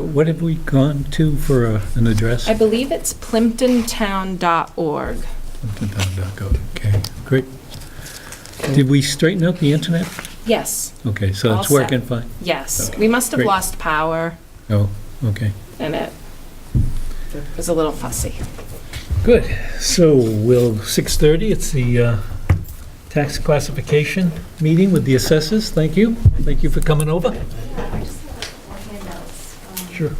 what have we gone to for a- an address? I believe it's plimptontown.org. Okay, great. Did we straighten out the internet? Yes, Okay, so All it's set. working fine? yes. Okay, We must have great. lost power Oh, okay. and it was a little fussy. Good. So we'll, 6:30, it's the uh, tax classification meeting with the assessors. Thank you. Thank you for coming over. Sure.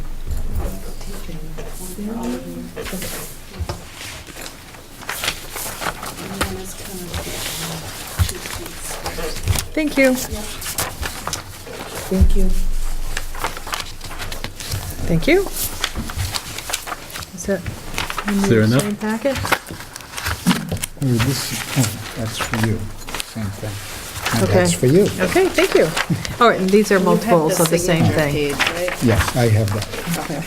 Thank you. Thank you. Thank you. Is that in Is there the enough? same packet? Oh, this, oh, that's for you, same thing. And Okay. That's for you, Okay, thank you. All right, and these are multiples of the same thing. yes, I have that. Okay,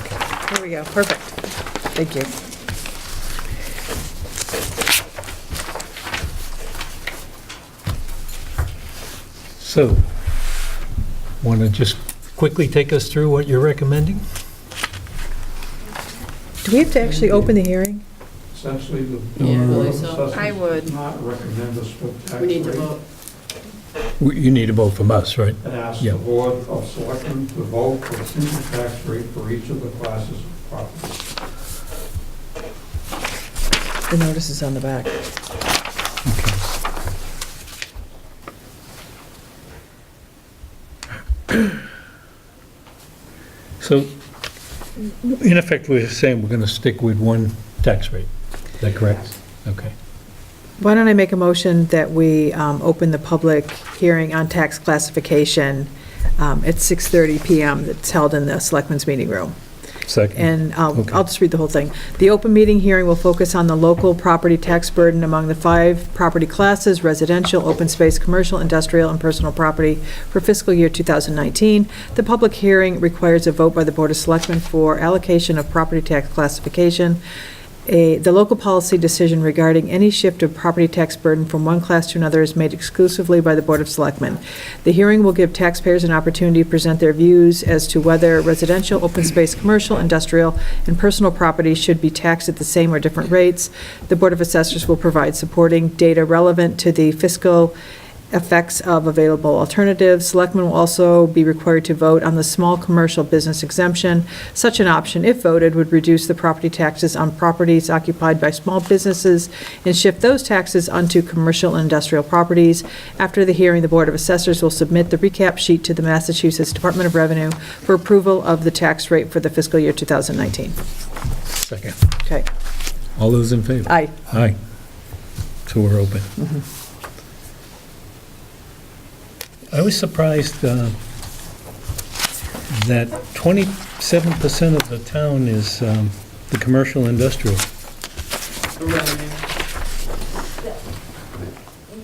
Okay. There we go, perfect. Thank you. So, want to just quickly take us through what you're recommending? Do we have to actually open the hearing? Essentially, the Yeah, I Board believe of so. I Assessors would. did not recommend a split tax We need rate to vote. W- You need a vote from us, right? and asked Yeah. the Board of Selectmen to vote for a single tax rate for each of the classes of property. The notice is on the back. So, in effect, we're saying we're going to stick with one tax rate. Is that correct? Okay. Why don't I make a motion that we um, open the public hearing on tax classification um, at 6:30 PM that's held in the Selectmen's Meeting Room? Second. And um, I'll, Okay. I'll just read the whole thing. The open meeting hearing will focus on the local property tax burden among the five property classes, residential, open space, commercial, industrial, and personal property for fiscal year 2019. The public hearing requires a vote by the Board of Selectmen for allocation of property tax classification. A, the local policy decision regarding any shift of property tax burden from one class to another is made exclusively by the Board of Selectmen. The hearing will give taxpayers an opportunity to present their views as to whether residential, open space, commercial, industrial, and personal property should be taxed at the same or different rates. The Board of Assessors will provide supporting data relevant to the fiscal effects of available alternatives. Selectmen will also be required to vote on the small commercial business exemption. Such an option, if voted, would reduce the property taxes on properties occupied by small businesses and shift those taxes onto commercial and industrial properties. After the hearing, the Board of Assessors will submit the recap sheet to the Massachusetts Department of Revenue for approval of the tax rate for the fiscal year 2019. Second. Okay. All those in favor? Aye. Aye. So we're open. I was surprised uh, that 27% of the town is um, the commercial industrial.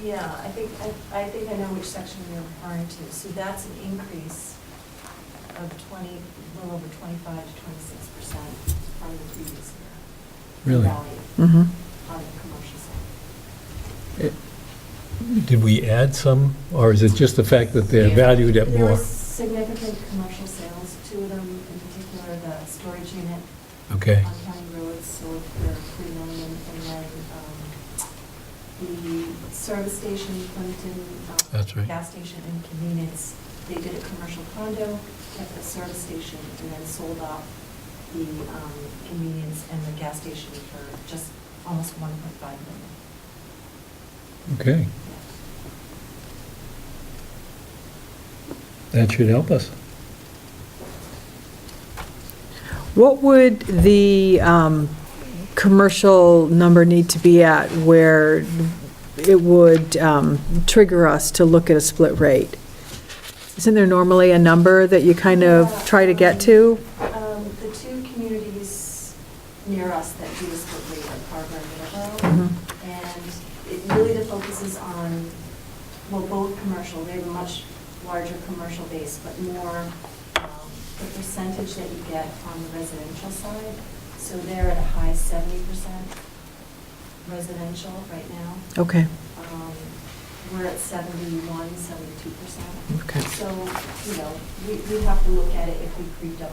Yeah, I think, I- I think I know which section you're referring to. So that's an increase of 20, a little over 25 to 26 percent from the previous year. Really? Value Mm-hmm. On the commercial side. Did we add some, or is it just the fact that they're valued at There were more? significant commercial sales, two of them in particular, the storage unit Okay, on county roads sold for 3 million, and then um, the service station, Clinton, um, that's right. gas station and convenience. They did a commercial condo, kept the service station, and then sold off the um, convenience and the gas station for just almost 1.5 million. Okay, that should help us. What would the um, commercial number need to be at where it would um, trigger us to look at a split rate? Isn't there normally a number that you kind of try to get to? Um, The two communities near us that do this split rate are Carver and Middleborough, Mhm. and it really the focus is on, well, both commercial, they have a much larger commercial base, but more um, the percentage that you get on the residential side. So they're at a high seventy percent residential right now. Okay, Um, We're at 71, 72 percent. okay. So, you know, we, we have to look at it if we creeped up